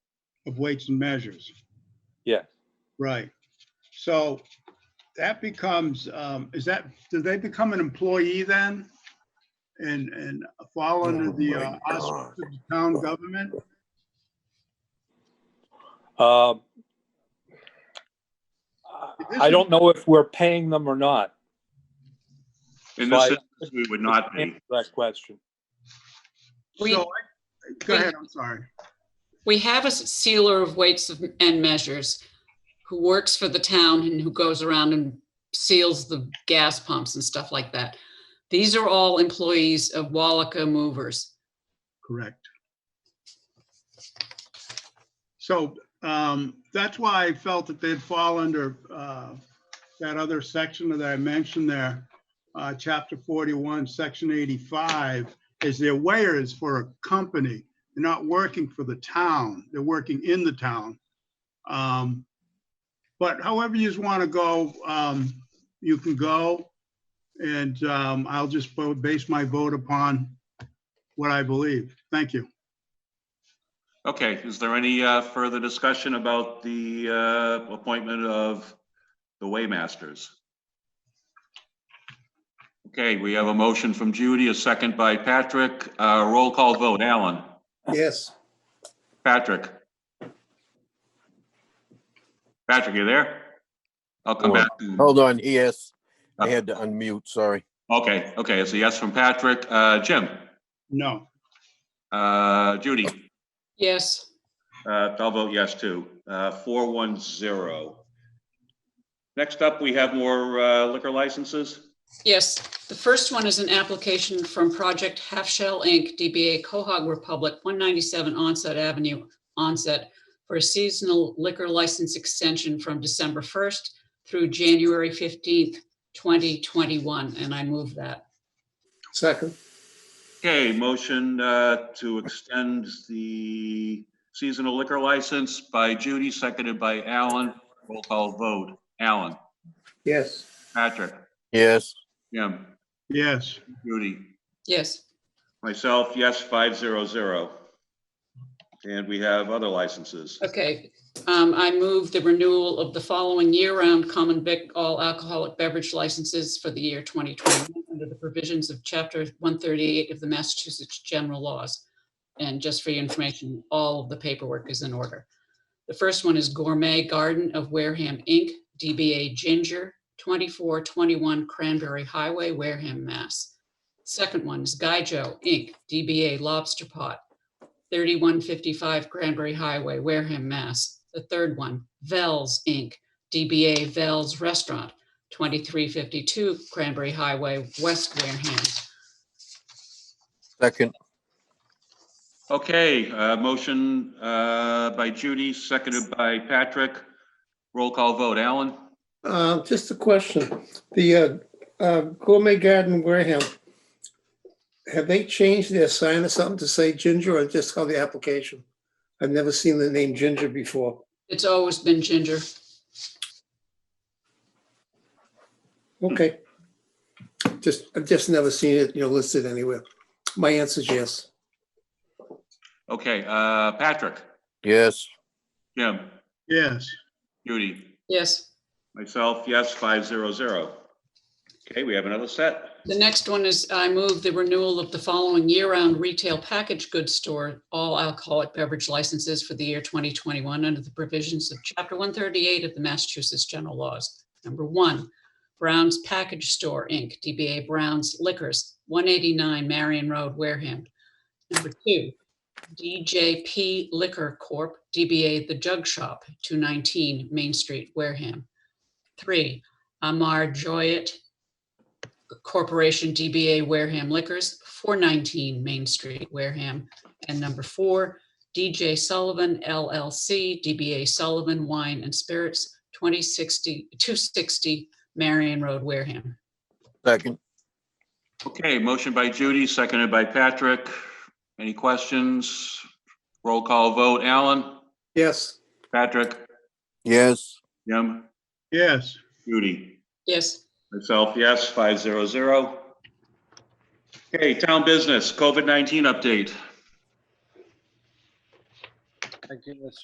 of weights and measures. Yeah. Right. So that becomes, um, is that, do they become an employee then? And, and fall under Oh, the my uh, auspices of the town government? Um, I don't know if we're paying them or not. In Right. this instance, we would not be. Answer That question. We- So I- Go ahead, I'm sorry. We have a sealer of weights of- and measures who works for the town and who goes around and seals the gas pumps and stuff like that. These are all employees of Wallaca Movers. Correct. So um, that's why I felt that they'd fall under uh, that other section that I mentioned there, uh, chapter 41, section 85, is they're weighers for a company. They're not working for the town, they're working in the town. Um, But however you want to go, um, you can go. And um, I'll just vote- base my vote upon what I believe. Thank you. Okay, is there any uh, further discussion about the uh, appointment of the Waymasters? Okay, we have a motion from Judy, a second by Patrick. Uh, Roll call vote, Alan. Yes. Patrick? Patrick, you there? I'll come back to, Hold on, yes. I had to unmute, sorry. okay, okay, it's a yes from Patrick. Uh, Jim? No. Uh, Judy? Yes, Uh, I'll vote yes too. Uh, four one zero. Next up, we have more uh, liquor licenses. yes. The first one is an application from Project Half Shell Inc., DBA Cohog Republic, 197 Onset Avenue, Onset, for a seasonal liquor license extension from December 1st through January 15th, 2021, and I move that. Second, Okay, motion uh, to extend the seasonal liquor license by Judy, seconded by Alan. Roll call vote. Alan, yes. Patrick, Yes, Jim, Yes. Judy, Yes, myself, yes, five zero zero. And we have other licenses. okay. Um, I move the renewal of the following year-round common vic all alcoholic beverage licenses for the year 2021 under the provisions of Chapter 138 of the Massachusetts General Laws. And just for your information, all of the paperwork is in order. The first one is Gourmet Garden of Wareham, Inc., DBA Ginger, 2421 Cranberry Highway, Wareham, Mass. Second one is Gaijo, Inc., DBA Lobster Pot, 3155 Cranberry Highway, Wareham, Mass. The third one, Vels Inc., DBA Vels Restaurant, 2352 Cranberry Highway, West Wareham. second, Okay, uh, motion uh, by Judy, seconded by Patrick. Roll call vote, Alan? Uh, Just a question. The uh, uh, Gourmet Garden Wareham, have they changed their sign or something to say Ginger or just on the application? I've never seen the name Ginger before. It's always been Ginger. Okay. Just, I've just never seen it, you know, listed anywhere. My answer is yes. Okay, uh, Patrick, yes, Jim, Yes. Judy, Yes. myself, yes, 500. Okay, we have another set. The next one is I move the renewal of the following year-round retail package goods store, all alcoholic beverage licenses for the year 2021 under the provisions of Chapter 138 of the Massachusetts General Laws. Number one, Brown's Package Store, Inc., DBA Brown's Liquors, 189 Marion Road, Wareham. Number two, DJP Liquor Corp., DBA The Jug Shop, 219 Main Street, Wareham. Three, Amar Joyet Corporation DBA Wareham Liquors, 419 Main Street, Wareham. And number four, DJ Sullivan LLC, DBA Sullivan Wine and Spirits, 2060, 260 Marion Road, Wareham. second, Okay, motion by Judy, seconded by Patrick. Any questions? Roll call vote, Alan, Yes. Patrick, yes, Jim, Yes. Judy. Yes, Myself, yes, 500. Okay, town business, COVID-19 update. I guess